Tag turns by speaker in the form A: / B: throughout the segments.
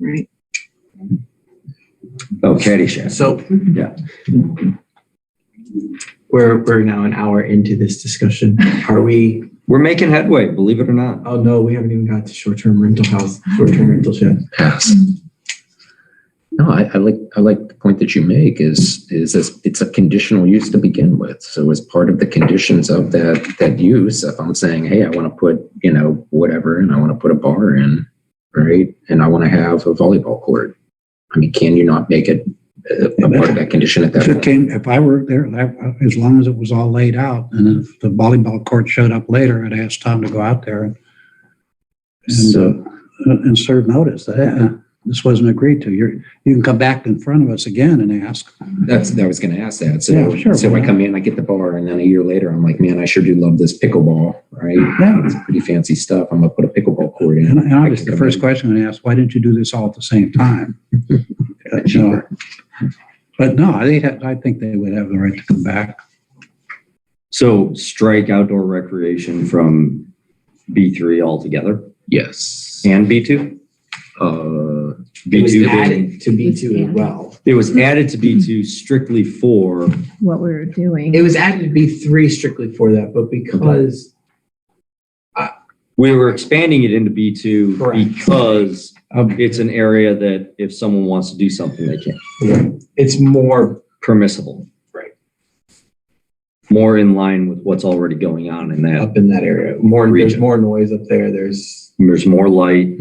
A: right?
B: Oh, Caddyshack.
C: So
B: Yeah.
C: we're, we're now an hour into this discussion. Are we,
B: We're making headway, believe it or not.
C: oh no, we haven't even got to short-term rental house, short-term rentals yet.
D: Yes.
E: Mm.
D: No, I, I like, I like the point that you make is, is this, it's a conditional use to begin with. So as part of the conditions of that, that use, if I'm saying, hey, I want to put, you know, whatever, and I want to put a bar in, right? And I want to have a volleyball court. I mean, can you not make it a, a part of that condition at that
E: If it
D: point?
E: came, if I were there, that- as long as it was all laid out, and if the volleyball court showed up later, I'd ask Tom to go out there and and,
D: So-
E: uh, and serve notice that uh, this wasn't agreed to. You're, you can come back in front of us again and ask.
D: That's, I was going to ask that. So,
E: Yeah, sure,
D: so
E: why
D: I
E: not?
D: come in, I get the bar, and then a year later, I'm like, man, I sure do love this pickleball, right?
E: Yeah.
D: It's pretty fancy stuff. I'm gonna put a pickleball court in.
E: And and
D: I
E: obviously,
D: can
E: the
D: come in.
E: first question I'm gonna ask, why didn't you do this all at the same time? Uh, so- But no, I think, I think they would have the right to come back.
B: So strike outdoor recreation from B3 altogether
D: Yes.
B: and B2?
C: It
D: Uh,
C: was
B: B2 being-
C: added to B2 as well.
B: It was added to B2 strictly for,
A: What we were doing.
C: It was added to B3 strictly for that, but because,
B: we were expanding it into B2
C: Correct.
B: because
C: um,
B: it's an area that if someone wants to do something, they can.
C: it's more
B: Permissible.
C: Right.
B: More in line with what's already going on in that.
C: up in that area, more, there's
B: Region.
C: more noise up there, there's. mm-hmm,
B: There's more light.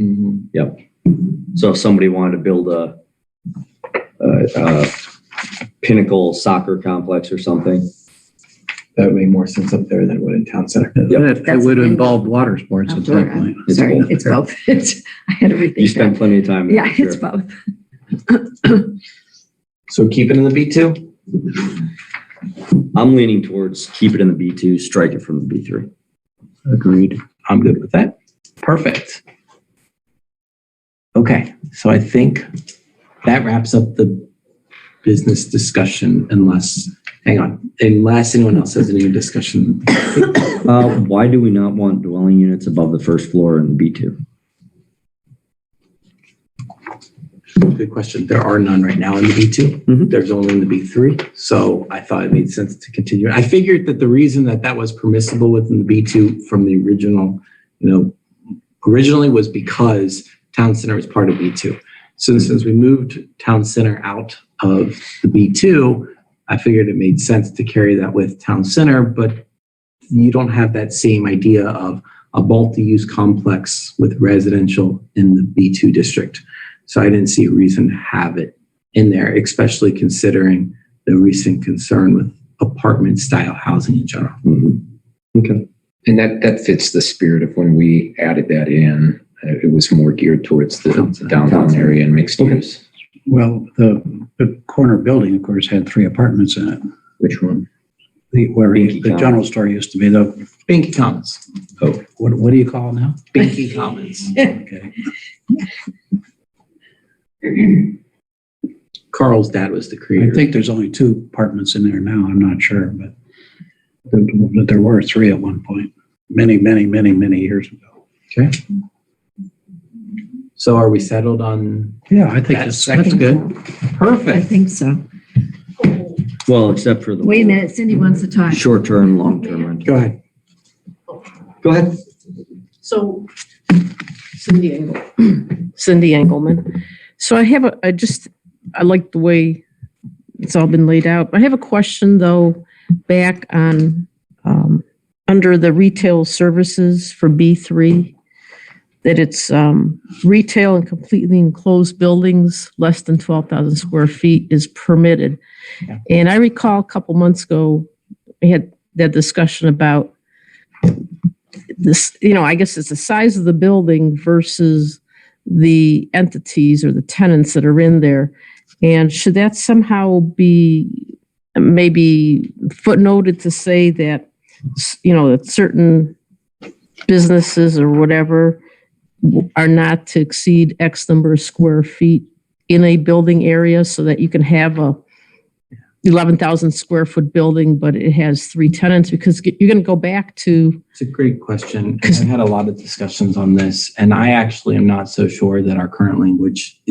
B: So if somebody wanted to build a, a, a pinnacle soccer complex or something,
C: That would make more sense up there than it would in town center.
E: That
A: That's-
E: would involve water sports at
A: Outdoor,
E: that
A: uh,
E: point.
B: It's
A: Sorry,
B: both.
A: it's both. It's, I had everything.
B: you spend plenty of time. there,
A: Yeah,
B: I'm sure.
A: it's both.
C: So keep it in the B2?
B: I'm leaning towards keep it in the B2, strike it from the B3.
C: Agreed. I'm good with that. Perfect. Okay, so I think that wraps up the business discussion unless, hang on, unless anyone else has any discussion.
B: Uh, why do we not want dwelling units above the first floor in B2?
C: Good question. There are none right now in the B2.
B: Mhm.
C: There's only in the B3. So I thought it made sense to continue. I figured that the reason that that was permissible within the B2 from the original, you know, originally was because town center was part of B2. So since we moved town center out of the B2, I figured it made sense to carry that with town center, but you don't have that same idea of a multi-use complex with residential in the B2 district. So I didn't see a reason to have it in there, especially considering the recent concern with apartment style housing in general.
D: and that, that fits the spirit of when we added that in. Uh, It was more geared towards the the downtown area and mixed use.
E: Well, the, the corner building, of course, had three apartments in it.
D: Which one?
E: The, where
B: Binky
E: the
B: Commons.
E: general store used to be, the,
C: Binky Commons.
E: what, what do you call it now?
C: Binky Commons.
E: Okay.
C: Carl's dad was the
E: I
C: creator.
E: think there's only two apartments in there now, I'm not sure, but there, but there were three at one point, many, many, many, many years ago.
C: So are we settled on?
E: Yeah, I think
C: That's
E: that's, that's
A: I think
E: good.
A: so. I
C: Perfect.
A: think so.
B: Well, except for the.
A: Wait a minute, Cindy wants to talk.
B: Short-term, long-term rental.
C: Go ahead.
B: Go ahead.
F: So Cindy Engel, Cindy Engelman. So I have a, I just, I like the way it's all been laid out. I have a question though, back on, um, under the retail services for B3, that it's, um, retail and completely enclosed buildings, less than 12,000 square feet is permitted.
C: Yeah.
F: And I recall a couple months ago, we had that discussion about this, you know, I guess it's the size of the building versus the entities or the tenants that are in there. And should that somehow be maybe footnoted to say that, s- you know, that certain businesses or whatever w- are not to exceed X number of square feet in a building area so that you can have a 11,000 square foot building, but it has three tenants? Because you're going to go back to
C: It's a great question. and I've had a lot of discussions on this, and I actually am not so sure that our current language